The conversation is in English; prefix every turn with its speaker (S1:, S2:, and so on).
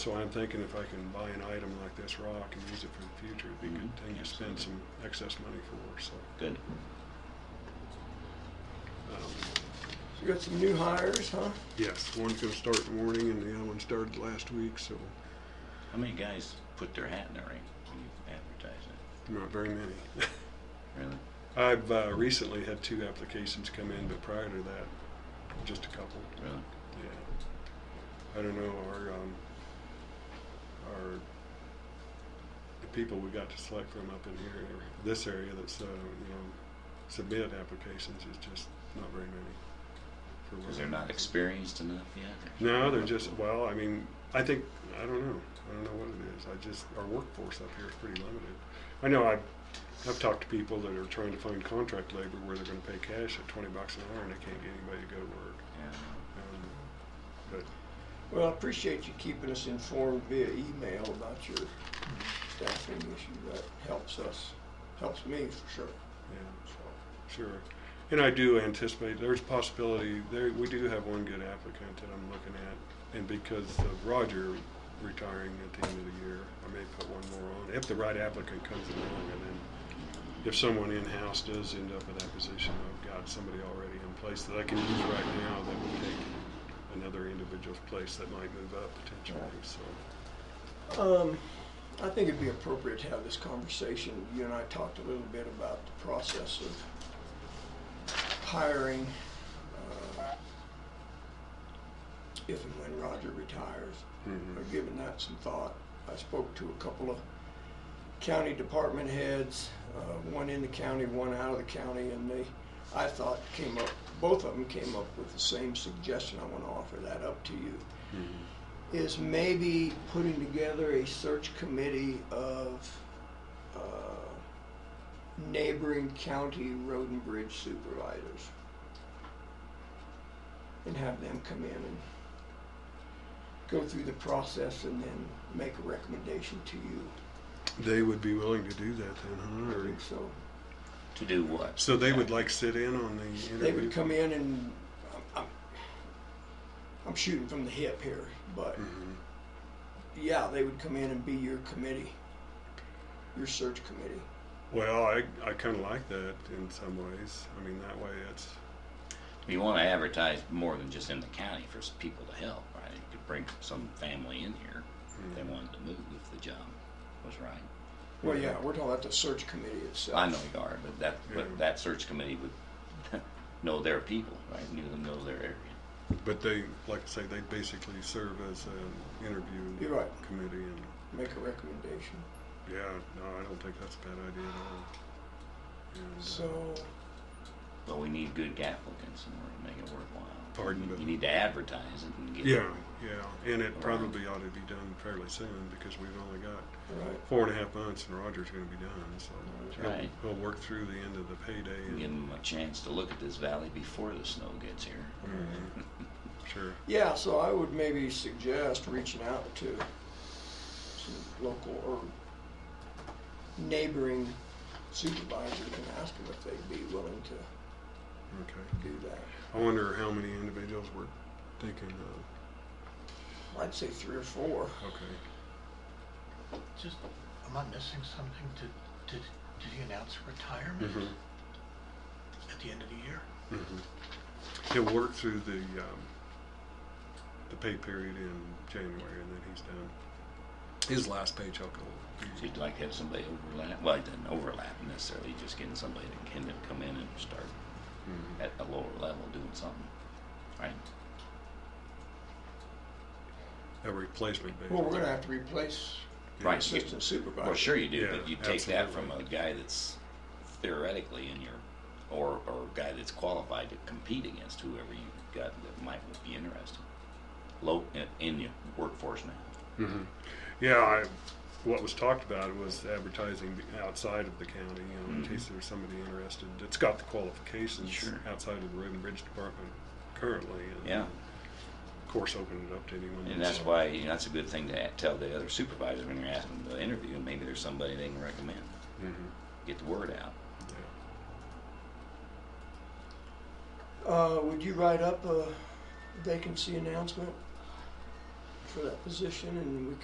S1: So I'm thinking if I can buy an item like this rock and use it for the future, it'd be a good thing to spend some excess money for, so.
S2: Good.
S1: um,
S3: You got some new hires, huh?
S1: Yes, one's gonna start in the morning and the other one started last week, so
S2: How many guys put their hat in the ring when you advertise it?
S1: not very many.
S2: Really?
S1: I've uh, recently had two applications come in, but prior to that, just a couple.
S2: Really?
S1: Yeah. I don't know, our, um, our, the people we got to select from up in here, or this area that's, uh, you know, submit applications is just not very many. for
S2: Because
S1: what-
S2: they're not experienced enough yet?
S1: No, they're just, well, I mean, I think, I don't know, I don't know what it is, I just, our workforce up here is pretty limited. I know I've, I've talked to people that are trying to find contract labor where they're gonna pay cash at twenty bucks an hour and they can't get anybody to go to work.
S2: Yeah.
S1: Um, But
S3: Well, I appreciate you keeping us informed via email about your staffing issue. That helps us, helps me for sure.
S1: Yeah,
S3: So,
S1: sure. And I do anticipate, there's possibility, there, we do have one good applicant that I'm looking at. And because of Roger retiring at the end of the year, I may put one more on, if the right applicant comes along. And then if someone in-house does end up in that position, I've got somebody already in place that I can use right now that would take another individual's place that might move up potentially, so.
S3: Um, I think it'd be appropriate to have this conversation. You and I talked a little bit about the process of hiring, uh, if and when Roger retires.
S1: mhm.
S3: I've given that some thought. I spoke to a couple of county department heads, uh, one in the county, one out of the county, and they, I thought came up, both of them came up with the same suggestion. I want to offer that up to you
S1: Mhm.
S3: is maybe putting together a search committee of uh, neighboring county road and bridge supervisors and have them come in and go through the process and then make a recommendation to you.
S1: They would be willing to do that then, huh?
S3: I
S1: Or-
S3: think so.
S2: To do what?
S1: So they would like sit in on the interview?
S3: They would come in and, I'm- I'm, I'm shooting from the hip here, but
S1: Mhm.
S3: yeah, they would come in and be your committee, your search committee.
S1: Well, I, I kind of like that in some ways. I mean, that way it's,
S2: You want to advertise more than just in the county for s- people to help, right? You could bring some family in here if they
S1: Mhm.
S2: wanted to move if the job was right.
S3: Well, yeah, we're talking about the search committee itself.
S2: I know you are, but that,
S1: Yeah.
S2: but that search committee would know their people, right? Knew them, know their area.
S1: but they, like I say, they basically serve as an interview
S3: You're right.
S1: committee. And
S3: Make a recommendation.
S1: yeah, no, I don't think that's a bad idea at all. And, uh,
S3: So,
S2: But we need good applicants in order to make it worthwhile.
S1: Pardon,
S2: You-
S1: but-
S2: You need to advertise it and get.
S1: yeah, yeah. And it probably ought to be done fairly soon because we've only got
S3: right,
S1: four and a half months and Roger's going to be done. So
S3: That's
S1: he'll-
S2: right.
S1: he'll, work through the end of the payday.
S2: Give
S1: And,
S2: them a chance to look at this valley before the snow gets here.
S1: Mhm. Sure.
S3: yeah, so I would maybe suggest reaching out to some local or neighboring supervisors and ask them if they'd be willing to
S1: Okay.
S3: do that.
S1: I wonder how many individuals we're thinking of.
S3: I'd say three or four.
S1: Okay.
S4: Just, am I missing something? Did, did, did he announce retirement
S2: Mm-hmm.
S1: Mhm.
S4: at the end of the year?
S2: Mm-hmm.
S1: Mhm. He'll work through the, um, the pay period in January and then he's done. His last paycheck will.
S2: So you'd like to have somebody overlap, well, it doesn't overlap necessarily, just getting somebody that can come in and start
S1: Mhm.
S2: at a lower level doing something, right?
S1: A replacement basis.
S3: Well, we're gonna have to replace
S1: Yeah.
S2: Right.
S3: assistant supervisor.
S2: Well, sure you do,
S1: Yeah,
S2: but you take that from a
S1: absolutely.
S2: guy that's theoretically in your, or, or a guy that's qualified to compete against whoever you got that might be interested. Low, in, in your workforce now.
S1: Mhm. Yeah, I, what was talked about was advertising outside of the county, you know, in
S2: Mhm.
S1: case there's somebody interested that's got the qualifications
S2: Sure.
S1: outside of the road and bridge department currently. and
S2: Yeah.
S1: Of course, open it up to anyone.
S2: And that's why, you know, that's a good thing to a- tell the other supervisor when you're asking them to interview, maybe there's somebody they can recommend.
S1: Mhm.
S2: Get the word out.
S1: Yeah.
S3: Uh, would you write up a vacancy announcement? for that position, and we